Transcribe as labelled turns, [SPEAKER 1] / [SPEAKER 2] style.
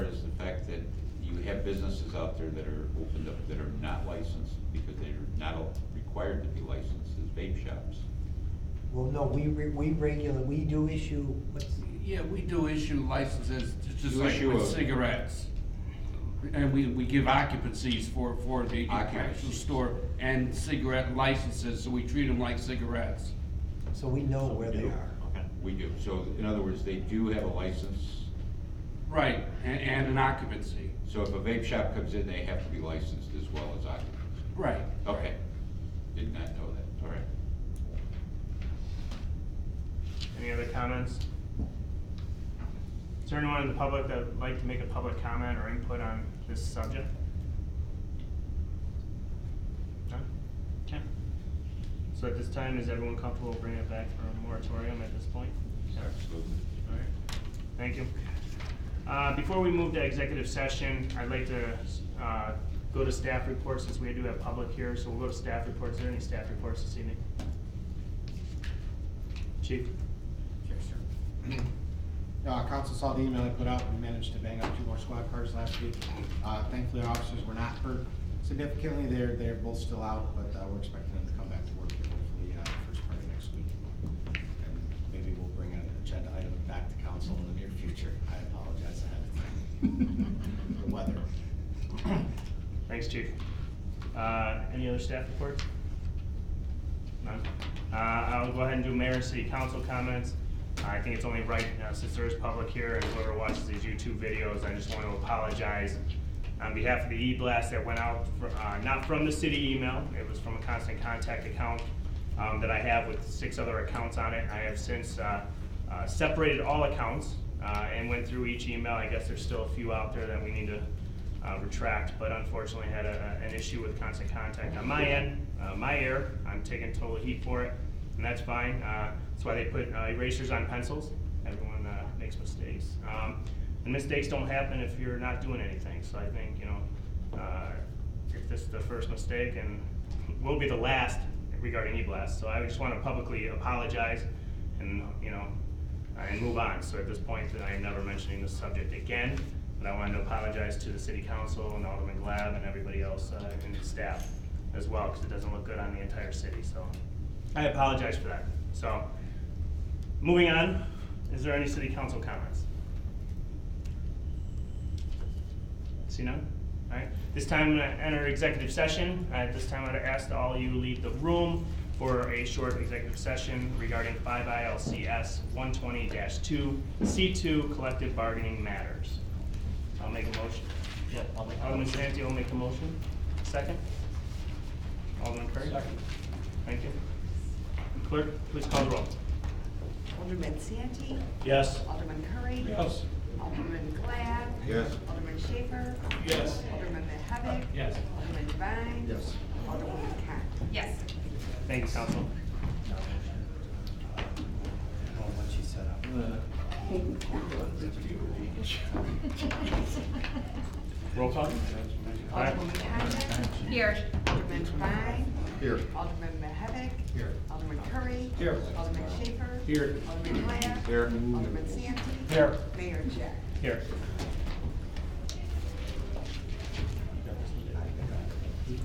[SPEAKER 1] have businesses out there that are opened up that are not licensed because they're not all required to be licensed as vape shops.
[SPEAKER 2] Well, no, we, re- we regulate, we do issue, what's,
[SPEAKER 3] Yeah, we do issue licenses, ju- just
[SPEAKER 1] You
[SPEAKER 3] like
[SPEAKER 1] issue a-
[SPEAKER 3] with cigarettes. And we, we give occupancies for, for the actual
[SPEAKER 1] Occupancies.
[SPEAKER 3] store and cigarette licenses, so we treat them like cigarettes.
[SPEAKER 2] so we know where they
[SPEAKER 1] do.
[SPEAKER 2] are.
[SPEAKER 4] Okay.
[SPEAKER 1] We do, so in other words, they do have a license,
[SPEAKER 3] Right, and, and an occupancy,
[SPEAKER 1] so if a vape shop comes in, they have to be licensed as well as occupants.
[SPEAKER 3] right.
[SPEAKER 1] Okay, did not know that, all right.
[SPEAKER 4] Any other comments? Is there anyone in the public that would like to make a public comment or input on this subject? None? Okay. So at this time, is everyone comfortable bringing it back for a moratorium at this point?
[SPEAKER 1] Absolutely.
[SPEAKER 4] All right, thank you. Uh, Before we move to executive session, I'd like to uh, go to staff reports since we do have public here, so we'll go to staff reports. Are there any staff reports this evening? Chief?
[SPEAKER 5] Sure, sure. Uh, council saw the email I put out, we managed to bang up two more squad cars last week. Uh, thankfully, our officers were not hurt significantly, they're, they're both still out, but, uh, we're expecting them to come back to work here hopefully, uh, first part of next week. And maybe we'll bring an agenda item back to council in the near future, I apologize ahead of time. The weather.
[SPEAKER 4] Thanks, Chief. Uh, Any other staff reports? None. Uh, I'll go ahead and do mayor and city council comments. I think it's only right, uh, since there is public here and whoever watches these YouTube videos, I just want to apologize on behalf of the e-blast that went out, fr- uh, not from the city email, it was from a constant contact account um, that I have with six other accounts on it. I have since uh, uh, separated all accounts uh, and went through each email. I guess there's still a few out there that we need to uh, retract, but unfortunately had a, an issue with constant contact on my end, uh, my error. I'm taking total heat for it, and that's fine. Uh, that's why they put uh, erasers on pencils. Everyone uh, makes mistakes, um, and mistakes don't happen if you're not doing anything. So I think you know, uh, if this is the first mistake and will be the last regarding e-blast. So I just want to publicly apologize, and you know, and move on. So at this point, I am never mentioning this subject again, but I wanted to apologize to the city council and Alderman Glab and everybody else uh, and the staff as well, because it doesn't look good on the entire city, so I apologize for that. So, moving on, is there any city council comments? See none? All right, this time I'm gonna enter executive session. Uh, At this time, I'd ask that all you leave the room for a short executive session regarding five ILCS one twenty two, C two, collective bargaining matters. I'll make a motion. Yeah. Alderman Santi will make a motion. Second? Alderman Curry? Second. Thank you. Clerk, please call the roll.
[SPEAKER 6] Alderman Santi.
[SPEAKER 4] Yes.
[SPEAKER 6] Alderman Curry. Yes. Alderman Glad.
[SPEAKER 1] Yes.
[SPEAKER 6] Alderman Schaper.
[SPEAKER 4] Yes.
[SPEAKER 6] Alderman Mahavik.
[SPEAKER 4] Yes.
[SPEAKER 6] Alderman Devine.
[SPEAKER 5] Yes.
[SPEAKER 6] Alderwoman Cott. Yes.
[SPEAKER 4] Thank you, council. Roll call? Aye.
[SPEAKER 6] Alderwoman Condon.
[SPEAKER 7] Here.
[SPEAKER 6] Alderman Devine.
[SPEAKER 5] Here.
[SPEAKER 6] Alderman Mahavik.
[SPEAKER 5] Here.
[SPEAKER 6] Alderman Curry.
[SPEAKER 5] Here.
[SPEAKER 6] Alderman Schaper.
[SPEAKER 4] Here.
[SPEAKER 6] Alderman Glad.
[SPEAKER 1] Here.
[SPEAKER 6] Alderman Santi.
[SPEAKER 4] Here.
[SPEAKER 6] Mayor Jack.
[SPEAKER 4] Here.